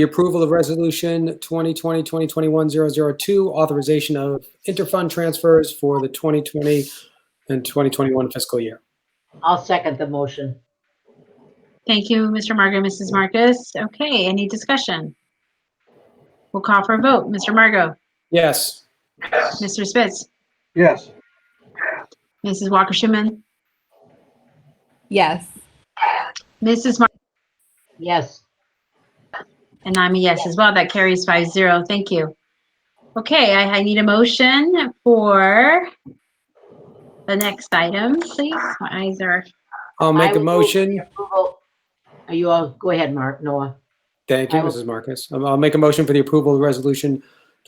The approval of Resolution 2020-2021-002, authorization of interfund transfers for the 2020 and 2021 fiscal year. I'll second the motion. Thank you, Mr. Margot, Mrs. Marcus. Okay, any discussion? We'll call for a vote. Mr. Margot? Yes. Mr. Spitz? yes, Mrs. Walker Schuman? yes, Mrs. Mar- Yes, and I'm a yes as well. That carries five zero. Thank you. Okay, I, I need a motion for the next item, please. My eyes are, I'll make I a will move motion. approval. Are you all, go ahead, Mark, Noah. Thank you, I will- Mrs. Marcus. Um, I'll make a motion for the approval of Resolution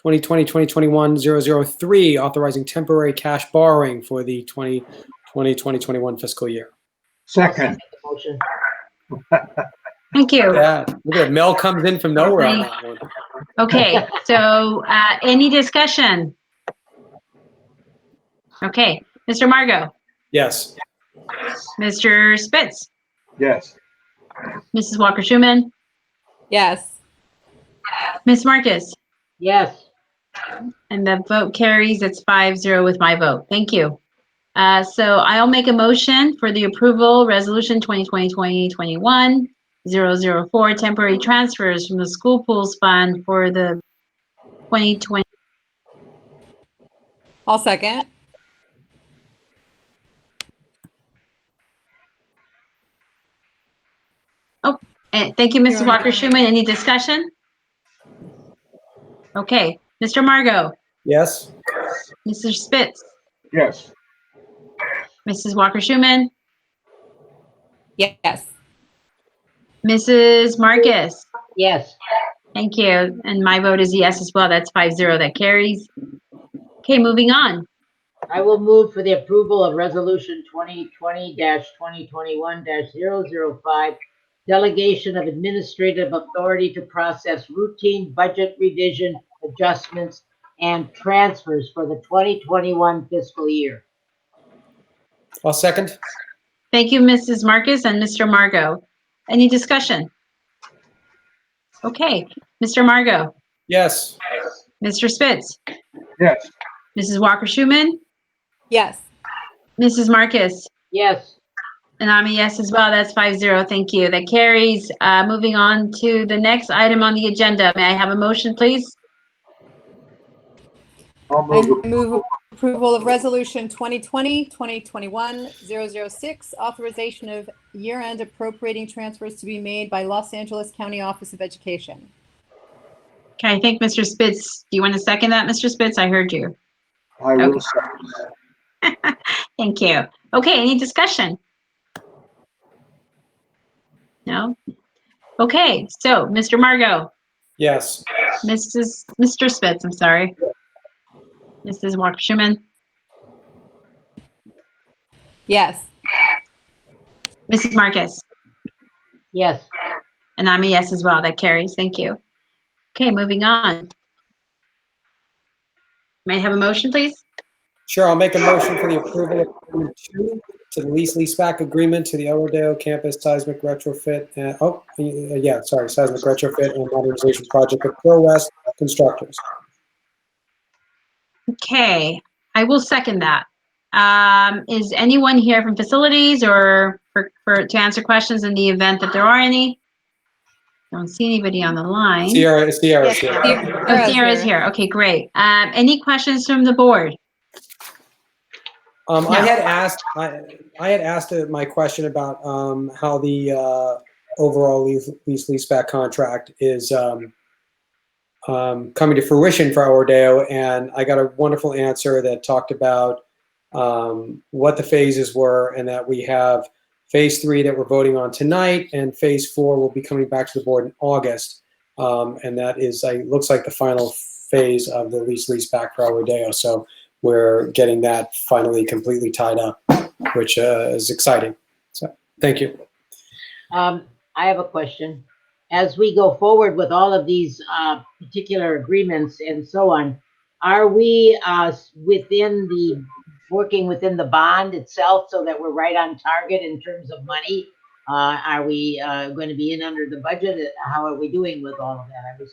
2020-2021-003, authorizing temporary cash borrowing for the 2020-2021 fiscal year. Second second, the Motion. thank you. Yeah, look at that. Mel comes in from nowhere on that one. Okay, so uh, any discussion? Okay, Mr. Margot, Yes. Mr. Spitz, yes, Mrs. Walker Schuman, yes, Ms. Marcus, Yes, and the vote carries. It's five zero with my vote. Thank you. Uh, so I'll make a motion for the approval resolution 2020-2021 004 temporary transfers from the school pools fund for the 2020. I'll second. And eh, thank you, Mrs. Walker Schuman. Any discussion? Okay, Mr. Margot. Yes. Mr. Spitz, yes, Mrs. Walker Schuman, Yes, Mrs. Marcus. yes, Thank you. And my vote is yes as well. That's five zero. That carries. Okay, moving on. I will move for the approval of resolution twenty twenty twenty twenty-one 5 Delegation of administrative authority to process routine budget revision adjustments and transfers for the twenty twenty-one fiscal year. I'll second. Thank you, Mrs. Marcus and Mr. Margot. Any discussion? Okay, Mr. Margot, Yes. Mr. Spitz, yes, Mrs. Walker Schuman, yes, Mrs. Marcus. Yes, And I'm a yes as well. That's five zero. Thank you. That carries. Uh, moving on to the next item on the agenda. May I have a motion, please? I'll I move, move approval of resolution 2020, 2021, 006, authorization of year-end appropriating transfers to be made by Los Angeles County Office of Education. Okay, I think Mr. Spitz, do you want to second that, Mr. Spitz? I heard you. I will second, Thank you. Okay, any discussion? No? Okay, so Mr. Margot, Yes. Mrs., Mr. Spitz, I'm sorry. Mrs. Walker Schuman, Yes, Mrs. Marcus, yes, and I'm a yes as well. That carries. Thank you. Okay, moving on. May I have a motion, please? Sure, I'll make a motion for the approval of Amendment 2 to the lease leaseback agreement to the El Rodeo Campus Seismic Retrofit, uh, oh, uh, yeah, sorry, Seismic Retrofit and Modernization Project of Pro West Constructors. Okay, I will second that. Um, is anyone here from facilities or for, for, to answer questions in the event that there are any? Don't see anybody on the line. Sierra, Sierra, Yes, Sierra. Sierra. Oh, Sierra's here. Okay, great. Um, any questions from the board? Um, I No. had asked, I, I had asked uh, my question about, um, how the, uh, overall lease, lease leaseback contract is, um, um, coming to fruition for El Rodeo, and I got a wonderful answer that talked about, um, what the phases were, and that we have phase three that we're voting on tonight, and phase four will be coming back to the board in August. Um, and that is, I, looks like the final phase of the lease leaseback for El Rodeo, so, we're getting that finally completely tied up, which uh, is exciting. So, thank you. Um, I have a question. As we go forward with all of these, uh, particular agreements and so on, are we, uh, s- within the, working within the bond itself so that we're right on target in terms of money? Uh, are we, uh, going to be in under the budget? How are we doing with all of that? I was